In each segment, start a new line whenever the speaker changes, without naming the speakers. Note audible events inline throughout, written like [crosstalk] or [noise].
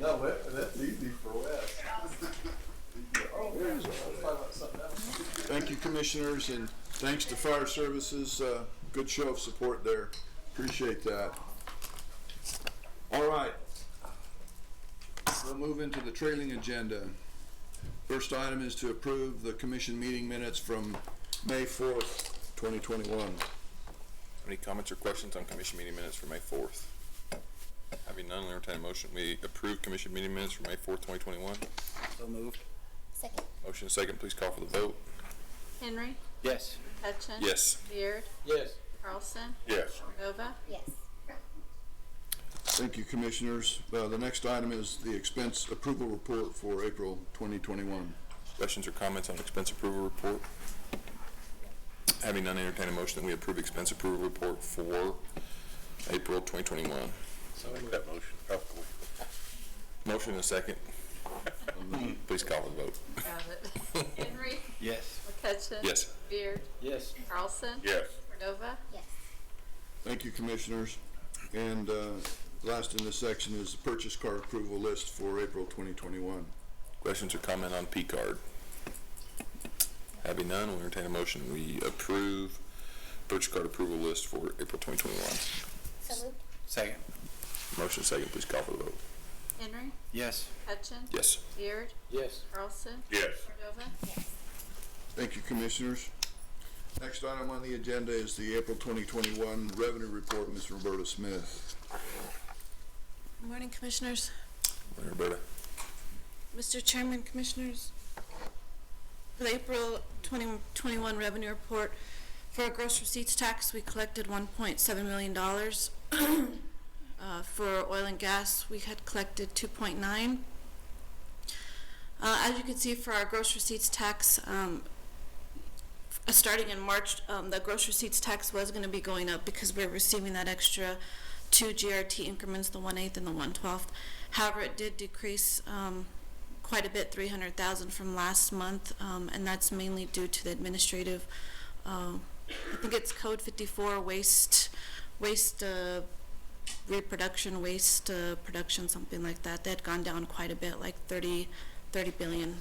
No, that- that's easy for Wes. Oh, yeah, let's talk about something else.
Thank you, commissioners, and thanks to fire services. Uh, good show of support there. Appreciate that. All right. We'll move into the trailing agenda. First item is to approve the commission meeting minutes from May fourth, twenty twenty-one.
Any comments or questions on commission meeting minutes for May fourth? Having none, I'll entertain a motion. We approve commission meeting minutes for May fourth, twenty twenty-one.
So moved.
Second.
Motion second, please call for the vote.
Henry.
Yes.
Hutchins.
Yes.
Beard.
Yes.
Carlson.
Yes.
Nova.
Yes.
Thank you, commissioners. Uh, the next item is the expense approval report for April twenty twenty-one.
Questions or comments on expense approval report? Having none, entertain a motion that we approve expense approval report for April twenty twenty-one. Oh,
So moved. That motion.
Motion and
[laughs]
second. Please call for the vote.
Got it. [laughs] Henry.
Yes.
McCutcheon.
Yes.
Beard.
Yes.
Carlson.
Yes.
Cordova.
Yes.
Thank you, commissioners. And uh, last in this section is the purchase car approval list for April 2021.
Questions or comment on P card? Having none, we'll entertain a motion. We approve purchase card approval list for April twenty twenty-one.
So moved.
Second.
Motion second, please call for the vote.
Henry.
Yes.
McCutcheon.
Yes.
Beard.
Yes.
Carlson.
Yes.
Cordova.
Thank you, commissioners. Next item on the agenda is the April 2021 revenue report, Ms. Roberta Smith.
Morning, Commissioners.
Roberta.
Mr. Chairman, Commissioners. For the April 2021 revenue report, for our gross receipts tax, we collected $1.7 million. [coughs] Uh, For oil and gas, we had collected 2.9. million. Uh, As you can see, for our gross receipts tax, um, uh, starting in March, um, the gross receipts tax was going to be going up because we're receiving that extra two GRT increments, the one eighth and the one twelfth. However, it did decrease um, quite a bit, three hundred thousand from last month, um, and that's mainly due to the administrative. Uh, I think it's Code fifty-four waste, waste uh, reproduction, waste uh, production, something like that. That had gone down quite a bit, like 30 30 billion.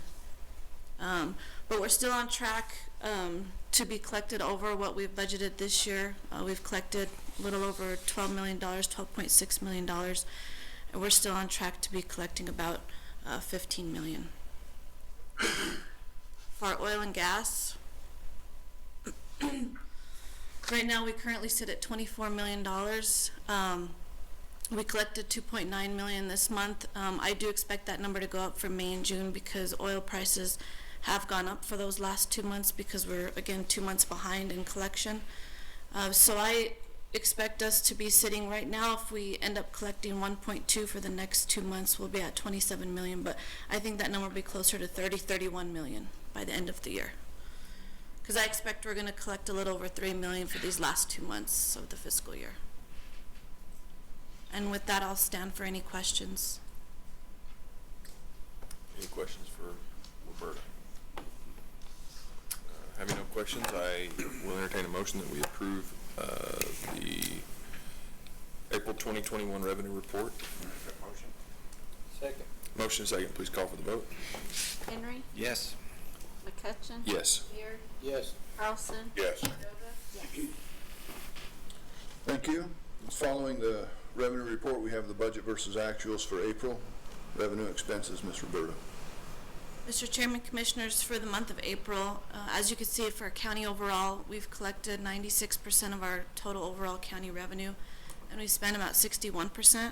Um, but we're still on track, um, to be collected over what we've budgeted this year. Uh, we've collected a little over twelve million dollars, twelve point six million dollars. And we're still on track to be collecting about, uh, fifteen million. For our oil and gas, right now, we currently sit at twenty-four million dollars. Um, we collected 2.9 million this month. Um, I do expect that number to go up for May and June because oil prices have gone up for those last two months because we're again two months behind in collection. Uh, so I expect us to be sitting right now if we end up collecting 1.2 for the next two months, we'll be at 27 million. But I think that number will be closer to 30, 31 million by the end of the year. Because I expect we're going to collect a little over 3 million for these last two months of the fiscal year. And with that, I'll stand for any questions.
Any questions for Roberta? Uh, Having no questions, I will entertain a motion that we approve uh, the April 2021 revenue report.
Motion. Second.
Motion second, please call for the vote.
Henry.
Yes.
McCutcheon.
Yes.
Beard.
Yes.
Carlson.
Yes.
Cordova.
Thank you. Following the revenue report, we have the budget versus actuals for April. Revenue expenses, Ms. Roberta.
Mr. Chairman, Commissioners, for the month of April, uh, as you can see, for our county overall, we've collected 96% of our total overall county revenue, and we spent about 61%.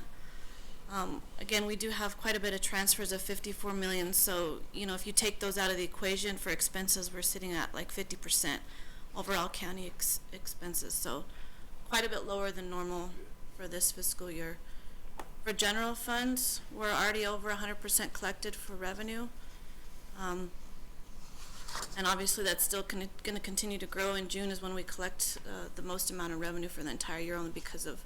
Um, Again, we do have quite a bit of transfers of 54 million, so, you know, if you take those out of the equation for expenses, we're sitting at like 50% overall county ex- expenses, so quite a bit lower than normal for this fiscal year. For general funds, we're already over 100% collected for revenue. Um, And obviously, that's still going to continue to grow. In June is when we collect uh, the most amount of revenue for the entire year, only because of,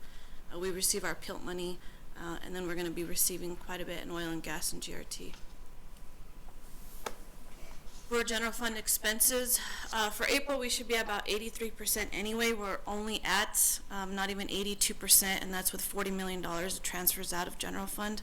uh, we receive our PILT money, uh, and then we're going to be receiving quite a bit in oil and gas and GRT. For general fund expenses, uh, for April, we should be about 83% anyway. We're only at um, not even 82%, and that's with $40 million of transfers out of general fund.